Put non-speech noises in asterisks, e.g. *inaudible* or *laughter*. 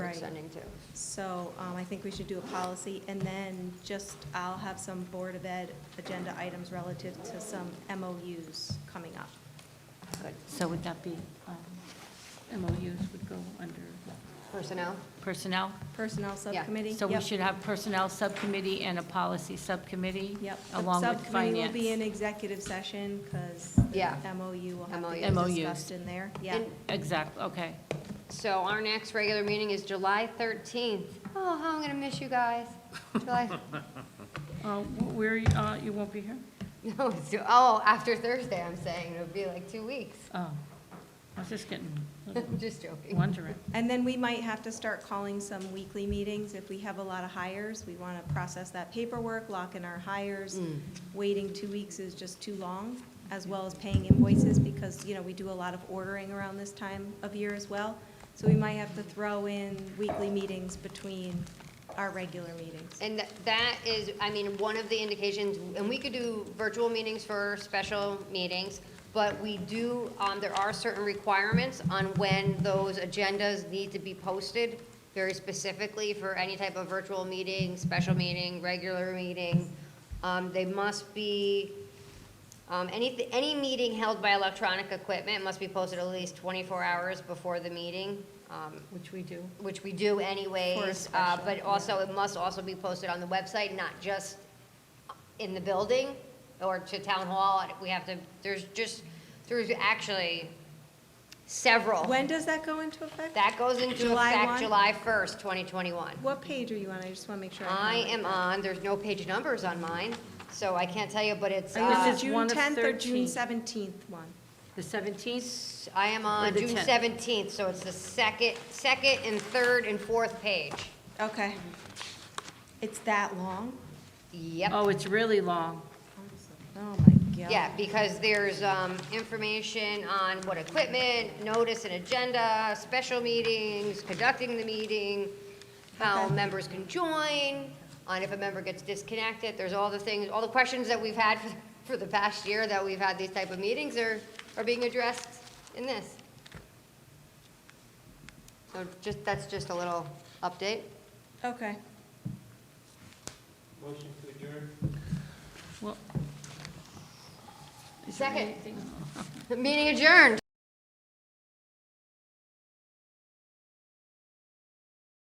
Right. sending to. So um, I think we should do a policy, and then just, I'll have some Board of Ed agenda items relative to some MOUs coming up. Good. So would that be, um, MOUs would go under Personnel? personnel? Personnel Subcommittee? So we Yep. should have personnel subcommittee and a policy subcommittee? Yep. The Along with Subcommittee will be in finance? executive session, because Yeah. MOU will have to MOUs. be discussed in there. Yeah. And- Exactly, okay. So our next regular meeting is July 13th. Oh, how I'm going to miss you guys. July, *laughs* Uh, wh- Where, are you uh, you won't be here? no, it's, oh, after Thursday, I'm saying, it'll be like two weeks. *laughs* Oh, I was just getting, Just joking. wondering. And then we might have to start calling some weekly meetings if we have a lot of hires. We want to process that paperwork, lock in our hires. Hmm. Waiting two weeks is just too long, as well as paying invoices because, you know, we do a lot of ordering around this time of year as well. So we might have to throw in weekly meetings between our regular meetings. And tha- that is, I mean, one of the indications, and we could do virtual meetings for special meetings, but we do, um, there are certain requirements on when those agendas need to be posted, very specifically for any type of virtual meeting, special meeting, regular meeting. Um, They must be, um, any, any meeting held by electronic equipment must be posted at least 24 hours before the meeting, um, Which we do. which we do For a anyways, uh, special, but also it must also be posted on the website, not just in the building or to town hall. We have to, there's just, there's actually several. When does that go into effect? That goes into July effect 1? July 1st, 2021. What page are you on? I just want to make sure. have I it. am on, there's no page numbers on mine, so I can't tell you, but it's, Are you uh, Is it This is June one of 10th or June 13. 17th one? The 17th? I am on Or the June 10th. 17th, so it's the second, second and third and fourth page. Okay. It's that long? Yep. Oh, it's really long. Oh, my God. Yeah, because there's um, information on what equipment, notice and agenda, special meetings, conducting the meeting, how Okay. members can join, on if a member gets disconnected, there's all the things, all the questions that we've had *laughs* for- for the past year that we've had these type of meetings are, are being addressed in this. So just, that's just a little update. Okay. Motion to adjourn? Well. Second. Meeting adjourned.